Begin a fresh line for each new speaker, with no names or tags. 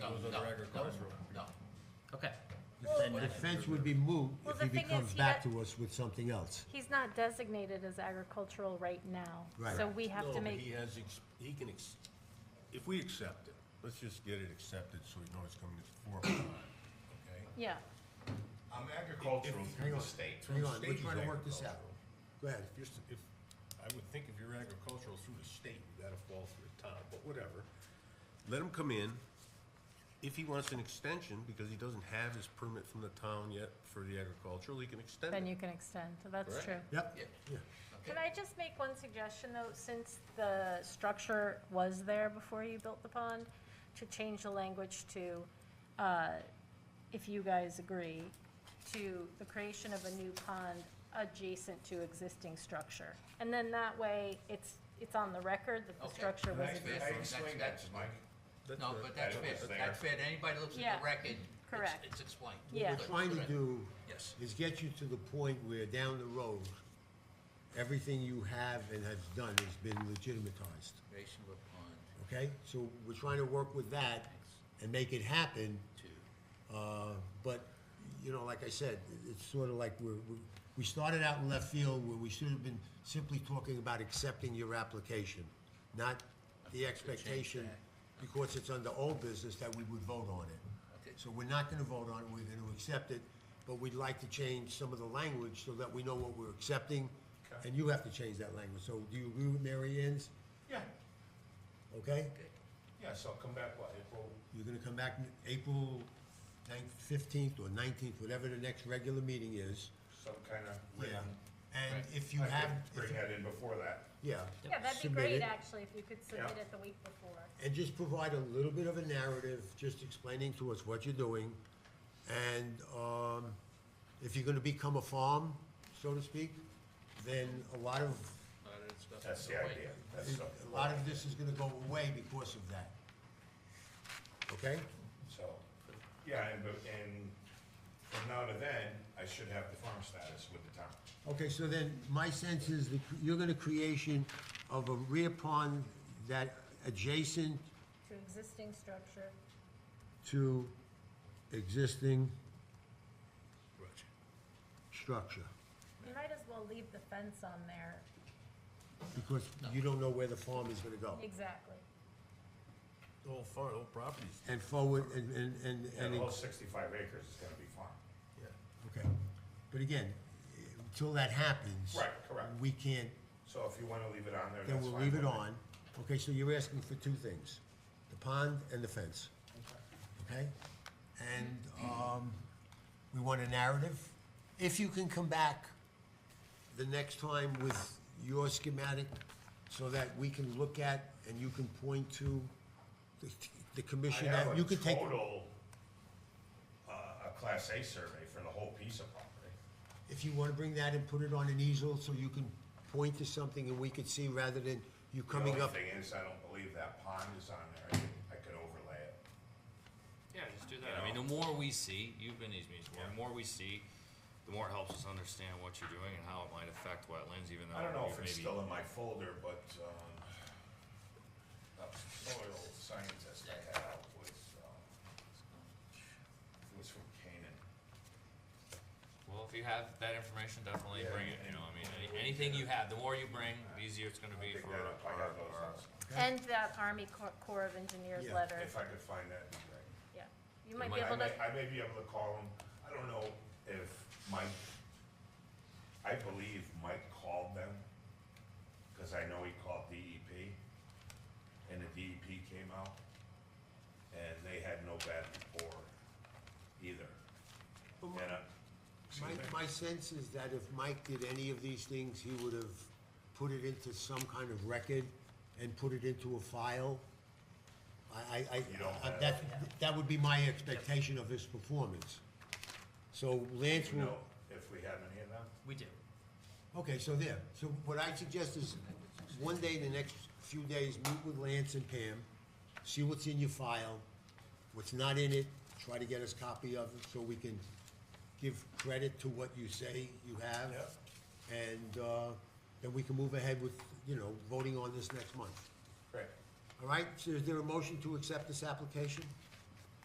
No,
other
no,
agricultural.
No,
Okay.
Then the fence would be moot
Well,
if
the
he
thing is,
becomes
he
back
got-
to us with something else.
He's not designated as agricultural right now,
Right.
so we have
No,
to
but
make,
He has, ex- he can, ex- if we accept it, let's just get it accepted so we know it's coming to the forefront, okay?
yeah.
I'm agricultural
If-
through the state.
Hang on, we're
State
trying to work this out.
agricultural.
Go ahead.
If you're, s- if, I would think if you're agricultural through the state, you gotta fall through the town, but whatever. Let him come in. If he wants an extension, because he doesn't have his permit from the town yet for the agricultural, he can extend
Then
it.
you can extend, so that's
Correct.
true.
Yep.
Yeah,
Yeah.
Can I just make one suggestion, though, since the structure was there before you built the pond, to change the language to, uh, if you guys agree, to the creation of a new pond adjacent to existing structure. And then that way, it's, it's on the record that the
Okay.
structure was
I-
That's
I
fair.
existing.
explained that
That's-
to Mike.
that's- No,
That's
but
right.
that's
That
fair,
was
that's
there.
fair, to anybody that looks at
Yeah.
the record, it's,
Correct.
it's explained.
Yeah.
What we're trying to
Correct.
do
Yes.
is get you to the point where down the road, everything you have and have done has been legitimatized,
Creation of a pond
okay? So we're trying to work with that and make it happen,
to,
uh, but, you know, like I said, it- it's sort of like we're, we- we started out in left field where we should have been simply talking about accepting your application, not the expectation, because it's under old business, that we would vote on
Okay.
it. So we're not gonna vote on it, we're gonna accept it, but we'd like to change some of the language so that we know what we're accepting, and you have to change that language. So do you agree with Mary Ann's,
Yeah,
okay?
yeah, so come back, what, April?
You're gonna come back in April ninth, fifteenth, or nineteenth, whatever the next regular meeting is.
some kind of
Yeah,
written.
and if you
I
have,
could
if
Bring
you-
that in before that.
yeah.
Yeah, that'd be
submit
great,
it.
actually, if you could submit
Yeah.
it the week before.
And just provide a little bit of a narrative, just explaining to us what you're doing. And, um, if you're gonna become a farm, so to speak, then a lot of,
not that it's got-
That's the idea. That's the.
a lot of this is gonna go away because of that. Okay?
So, yeah, and, but, and from now to then, I should have the farm status with the town.
Okay, so then, my sense is that you're gonna creation of a rear pond that adjacent
To existing structure,
to existing
Right.
structure,
you might as well leave the fence on there.
because you don't know where the farm is gonna go.
Exactly.
The whole farm, the whole property's,
And forward, and, and, and,
And
and,
the whole sixty-five acres is gonna be farm.
yeah.
okay, but again, until that happens.
Right, correct.
We can't,
So if you wanna leave it on there,
then
that's fine.
we'll leave it
with me.
on, okay, so you're asking for two things, the pond and the fence, okay? And, um, we want a narrative, if you can come back the next time with your schematic, so that we can look at and you can point to the, the commission
I
that,
have
you
a
could take.
total, uh, a class A survey for the whole piece of property.
If you wanna bring that and put it on an easel so you can point to something and we could see rather than you coming up.
The only thing is, I don't believe that pond is on there. I could- I could overlay it.
Yeah, just do that. I mean, the more we see, you've been to these meetings, the more we see, the more it helps us understand what you're doing and how it might affect wetlands, even though.
I don't know if
we've
it's
maybe-
still in my folder, but, um, the soil scientist I had out was, um, was from Canaan.
Well, if you have that information, definitely
Yeah.
bring it, you know, I mean, any- anything you have, the more you bring, the easier it's gonna
I
be
think
for
that,
our,
I have those,
our-
also.
And that Army Cor- Corps of Engineers
Yeah,
letter,
if I could find that, it'd be great.
yeah. You might be
might-
I
able to,
may, I may be able to call him, I don't know if Mike, I believe Mike called them, cause I know he called DEP, and the DEP came out, and they had no bad rapport either.
Well,
And, uh,
My, my sense is that if Mike did any of these things, he would have put it into some kind of record and put it into a file. I, I, I,
You don't
I-
have-
that, that would be my expectation of his performance. So Lance
you
will,
know, if we have any of them,
We do.
okay, so there, so what I suggest is, one day, the next few days, meet with Lance and Pam, see what's in your file, what's not in it, try to get us copy of it, so we can give credit to what you say you have.
Yep.
And, uh, then we can move ahead with, you know, voting on this next month.
great.
All right, so is there a motion to accept this application?